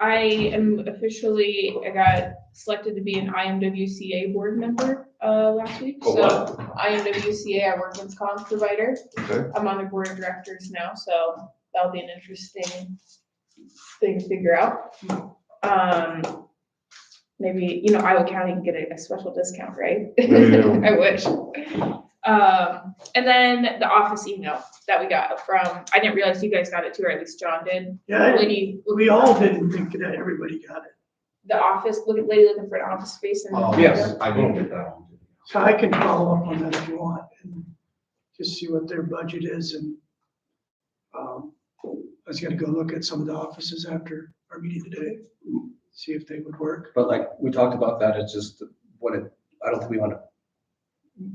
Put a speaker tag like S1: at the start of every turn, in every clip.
S1: I am officially, I got selected to be an IMWCA board member, uh, last week.
S2: Oh,
S1: So IMWCA, I work with comms provider.
S2: Okay.
S1: I'm on the board of directors now, so that'll be an interesting thing to figure out. Um, maybe, you know, Iowa County can get a, a special discount, right?
S2: Yeah.
S1: I wish. Um, and then the office email that we got from, I didn't realize you guys got it too, or at least John did.
S3: Yeah,
S1: Lady,
S3: we all didn't think that everybody got it.
S1: the office, look at lady looking for an office space and.
S2: Oh, Yes, I didn't get that one.
S3: So I can follow up on that if you want and just see what their budget is and um, I was gonna go look at some of the offices after our meeting today, see if they would work.
S4: But like, we talked about that, it's just what it, I don't think we wanna,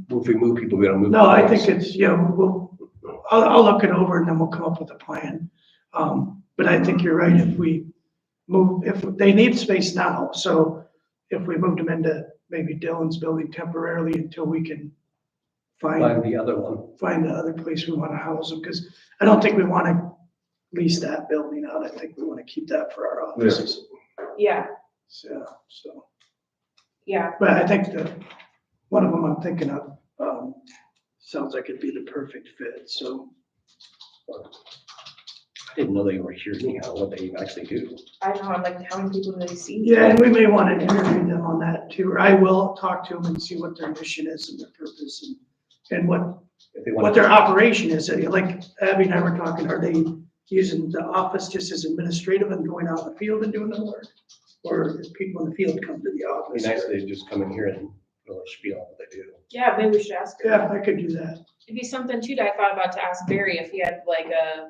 S4: if we move people, we gotta move.
S3: No, I
S4: people.
S3: think it's, yeah, we'll, I'll, I'll look it over and then we'll come up with a plan. Um, but I think you're right, if we move, if, they need space now, so if we moved them into maybe Dylan's building temporarily until we can find
S4: Find the other one.
S3: find the other place we want to house them, because I don't think we want to lease that building out. I think we want to keep that for our offices.
S1: Yeah,
S3: So, so,
S1: yeah,
S3: but I think the, one of them I'm thinking of, um, sounds like it'd be the perfect fit, so.
S4: I didn't know they were here anyhow, what they actually do.
S1: I don't know, I'm like, how many people do they see?
S3: Yeah, and we may want to interview them on that too, or I will talk to them and see what their mission is and their purpose and, and what
S4: If they
S3: what
S4: want,
S3: their operation is, I mean, like Abby and I were talking, are they using the office just as administrative and going out in the field and doing the work? Or if people in the field come to the
S4: it'd
S3: office?
S4: be nice if they just come in here and really spiel on what they do.
S1: Yeah, maybe we should ask her.
S3: Yeah, I could do that.
S1: It'd be something too that I thought about to ask Barry if he had like a,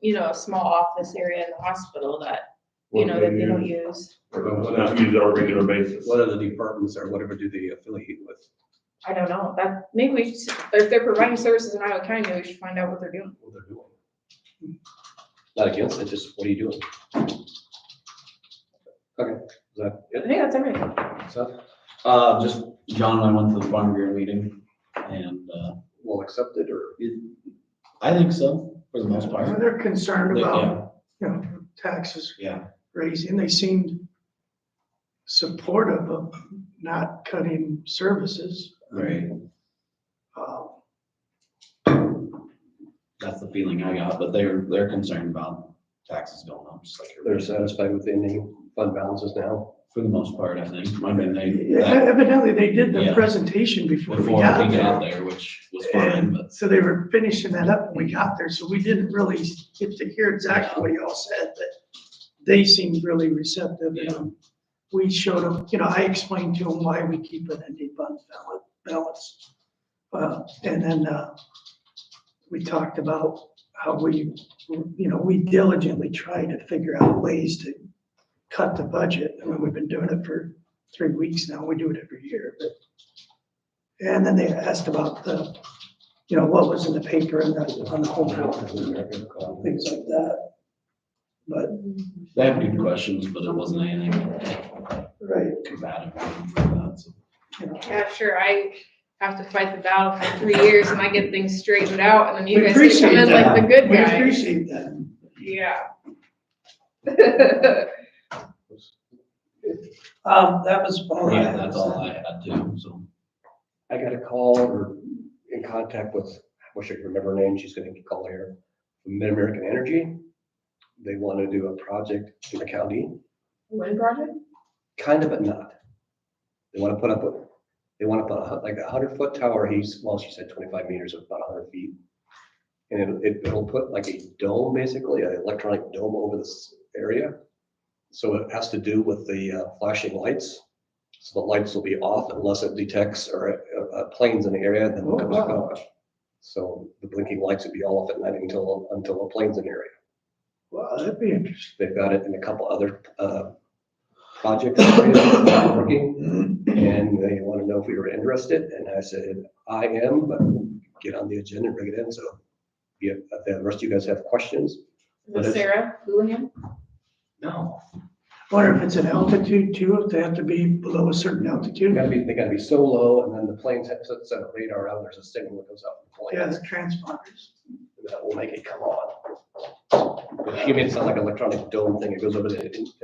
S1: you know, a small office area in the hospital that, you know, that they don't use.
S2: Or Not used on a regular basis.
S4: What other departments or whatever do they affiliate with?
S1: I don't know, that, maybe we, should- if they're providing services in Iowa County, we should find out what they're doing.
S4: what they're doing. Not against it, just what are you doing? Okay, is that
S1: I
S4: it?
S1: think that's everything.
S4: Seth?
S5: Uh, just John and I went to the farm bureau meeting and, uh,
S4: Well accepted or?
S5: it- I think so, for the most
S3: Well,
S5: part.
S3: They're concerned
S5: But,
S3: about, you know, taxes
S5: Yeah,
S3: raising, they seemed supportive of not cutting services.
S5: right.
S3: Uh,
S5: That's the feeling I got, but they're, they're concerned about taxes going up, just like.
S4: They're
S5: everybody.
S4: satisfied with the ending fund balances now?
S5: For the most part, I think. I mean, they, that-
S3: Evidently, they did the
S5: Yeah.
S3: presentation before we
S5: before we
S3: got there.
S5: got there, which was fine, but
S3: So they were finishing that up when we got there, so we didn't really get to hear exactly what y'all said, but they seemed really receptive. and um, We showed them, you know, I explained to them why we keep an ending fund bal- balance. Uh, and then, uh, we talked about how we, you know, we diligently try to figure out ways to cut the budget. I mean, we've been doing it for three weeks now, we do it every year, but. And then they asked about the you know, what was in the paper and the, on the home health, things like that. But,
S5: they have good questions, but it wasn't anything
S3: right,
S5: combative. or anything like that, so.
S3: you know.
S1: Yeah, sure, I have to fight the battle for three years and I get things straightened out and then you
S3: We
S1: guys get to come
S3: appreciate
S1: in like the
S3: that.
S1: good
S3: We
S1: guy.
S3: appreciate that.
S1: Yeah.
S3: Um, that was all I
S5: Yeah,
S3: had.
S5: that's all I had too, so.
S4: I got a call or in contact with, I wish I could remember her name, she's gonna call here, Mid-American Energy. They want to do a project in the county.
S1: Wind project?
S4: Kind of, but not. They want to put up, a- they want to put a hu- like a hundred foot tower, he's, well, she said twenty-five meters, about a hundred feet. And it- it'll put like a dome, basically, an electronic dome over this area. So it has to do with the uh, flashing lights. So the lights will be off unless it detects or uh, uh, planes in the area, then
S3: Oh,
S4: it comes back
S3: wow.
S4: on. So the blinking lights would be off at night until, until a plane's in the area.
S3: Well, that'd be interesting.
S4: They've got it in a couple other uh, projects that they're working, and they want to know if we were interested, and I said, I am, but get on the agenda and bring it in, so yeah, if the rest of you guys have questions,
S1: Is it Sarah Houlihan?
S5: No.
S3: Wonder if it's an altitude too, if they have to be below a certain
S4: they
S3: altitude.
S4: gotta be, they gotta be so low, and then the plane sets, sets a radar out, there's a signal that goes out from the
S3: Yeah,
S4: plane,
S3: the transponders.
S4: that will make it come on. She made it sound like an electronic dome thing, it goes over the